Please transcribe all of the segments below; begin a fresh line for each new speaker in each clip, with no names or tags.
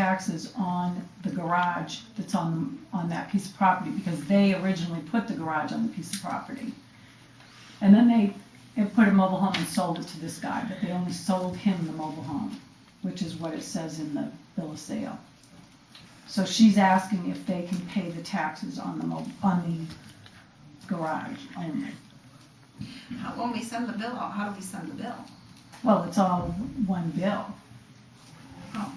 taxes on the garage that's on, on that piece of property, because they originally put the garage on the piece of property. And then they, they put a mobile home and sold it to this guy, but they only sold him the mobile home, which is what it says in the bill of sale. So she's asking if they can pay the taxes on the mo, on the garage only.
How, when we send the bill out, how do we send the bill?
Well, it's all one bill.
Oh.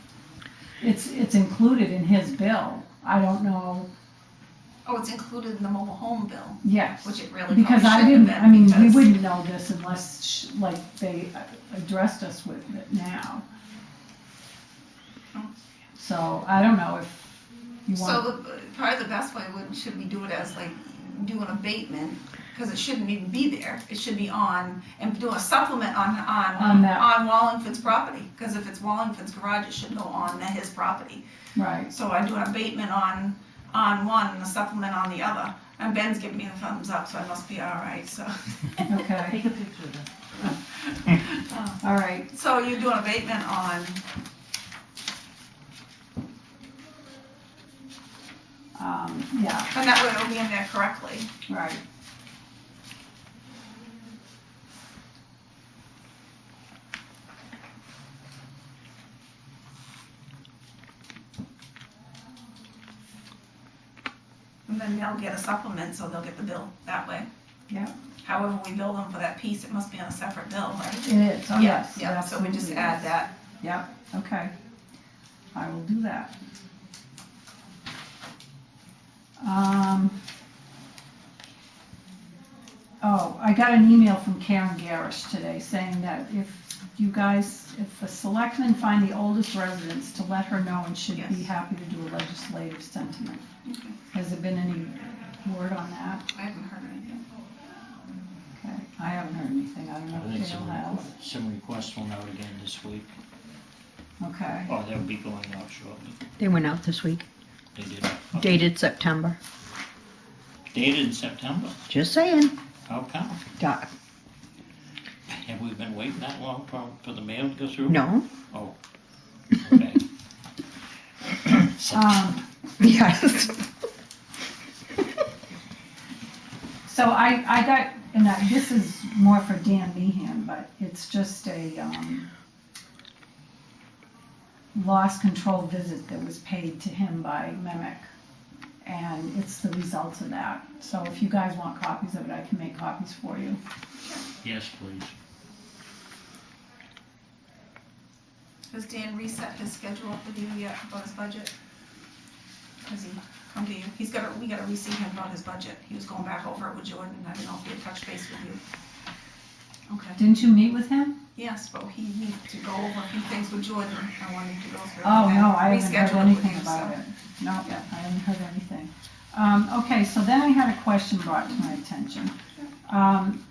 It's, it's included in his bill. I don't know,
Oh, it's included in the mobile home bill,
yes.
which it really
Because I
probably shouldn't
didn't,
have
I
been
mean, we
because-
wouldn't know this unless, sh- like, they uh, addressed us with it now. So I don't know if you want,
So uh, probably the best way would, should we do it as like, do an abatement, because it shouldn't even be there. It should be on, and do a supplement on,
On
on,
that.
on Wallingford's property. Because if it's Wallingford's garage, it should go on the- his property.
right,
So I do an abatement on, on one and a supplement on the other. And Ben's giving me the thumbs up, so I must be all right, so.
okay,
Take a picture of that.
all right.
So you do an abatement on,
Um, yeah,
and that way it'll be in there correctly.
right.
And then they'll get a supplement, so they'll get the bill that way.
Yeah.
However, we bill them for that piece, it must be on a separate bill, right?
It is, oh, yes.
Yeah, so we just
absolutely.
add that.
Yep, okay. I will do that. Um, oh, I got an email from Karen Garish today saying that if you guys, if the selectmen find the oldest residents, to let her know and she'd be
Yes.
happy to do a legislative sentiment.
Okay.
Has there been any word on that?
I haven't heard anything.
Okay, I haven't heard anything, I don't
I
know
think
if Dale
some,
has.
some requests went out again this week,
Okay,
or they'll be going out shortly.
They went out this week,
They did.
dated September.
Dated in September.
Just saying.
How come?
Doc,
Have we been waiting that long for, for the mail to go through?
no?
Okay. Uh,
um.
Yes.
So I, I got, and I, this is more for Dan Meehan, but it's just a, um, lost control visit that was paid to him by Mimic. And it's the results of that. So if you guys want copies of it, I can make copies for you.
Yes, please.
Has Dan reset his schedule with you yet about his budget? Has he come to you? He's gotta, we gotta reseat him about his budget. He was going back over it with Jordan, I don't know if he had touched base with you. Okay,
Didn't you meet with him?
yes, but he needs to go over a few things with Jordan. I wanted to go through.
Oh,
and
no, I haven't
reschedule
heard
it with
anything
you,
about
so-
it. No, I haven't heard anything. Um, okay, so then I had a question brought to my attention. Um,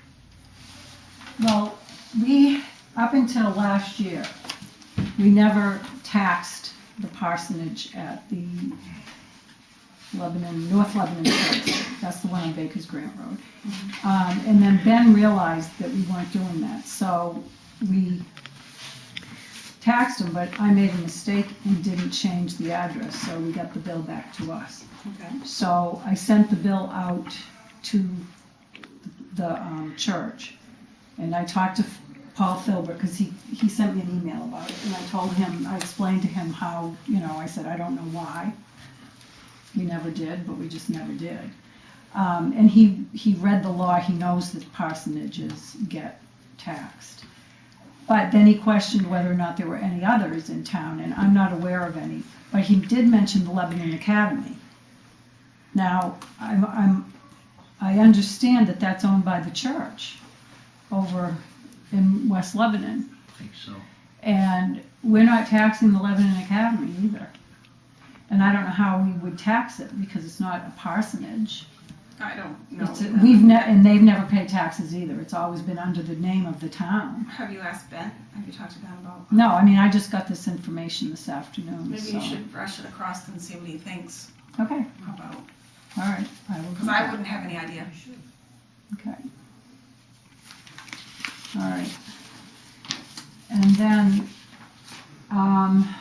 well, we, up until last year, we never taxed the parsonage at the Lebanon, North Lebanon Church. That's the one on Baker's Grant Road. Um, and then Ben realized that we weren't doing that, so we taxed them, but I made a mistake and didn't change the address, so we got the bill back to us.
Okay.
So I sent the bill out to the um, church, and I talked to Paul Filbert, because he, he sent me an email about it, and I told him, I explained to him how, you know, I said, I don't know why. We never did, but we just never did. Um, And he, he read the law, he knows that parsonages get taxed. But then he questioned whether or not there were any others in town, and I'm not aware of any. But he did mention the Lebanon Academy. Now, I'm, I'm, I understand that that's owned by the church over in West Lebanon,
I think so.
and we're not taxing the Lebanon Academy either. And I don't know how we would tax it because it's not a parsonage.
I don't know.
It's, we've ne- and they've never paid taxes either. It's always been under the name of the town.
Have you asked Ben? Have you talked to Ben about?
No, I mean, I just got this information this afternoon,
Maybe
so.
you should brush it across and see what he thinks
Okay,
about,
all right, I will do
because I
that,
wouldn't have any idea.
okay. All right. And then, um,